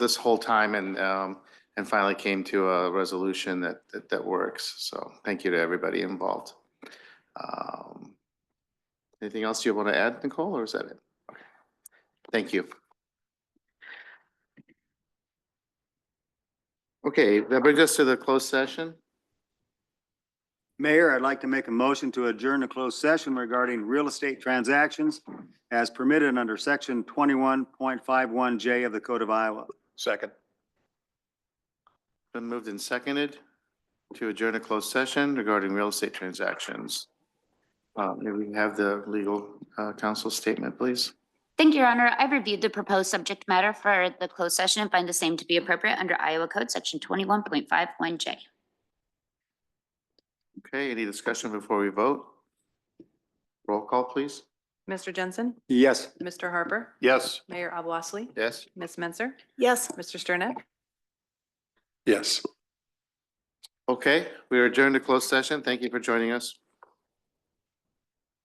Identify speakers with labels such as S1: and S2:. S1: this whole time and, um, and finally came to a resolution that, that, that works. So thank you to everybody involved. Um, Anything else you want to add, Nicole, or is that it? Okay. Thank you. Okay, that brings us to the closed session.
S2: Mayor, I'd like to make a motion to adjourn the closed session regarding real estate transactions as permitted under section twenty-one point five one J of the Code of Iowa.
S3: Second.
S1: Been moved and seconded to adjourn a closed session regarding real estate transactions. Uh, May we have the legal uh, counsel statement, please?
S4: Thank you, Your Honor. I've reviewed the proposed subject matter for the closed session and find the same to be appropriate under Iowa Code Section 21.51J.
S1: Okay, any discussion before we vote? Roll call, please.
S5: Mr. Jensen,
S2: Yes.
S5: Mr. Harper,
S3: Yes.
S5: Mayor Abwasli,
S1: Yes.
S5: Ms. Menzer,
S6: Yes.
S5: Mr. Sternet.
S3: Yes.
S1: Okay, we are adjourned to closed session. Thank you for joining us.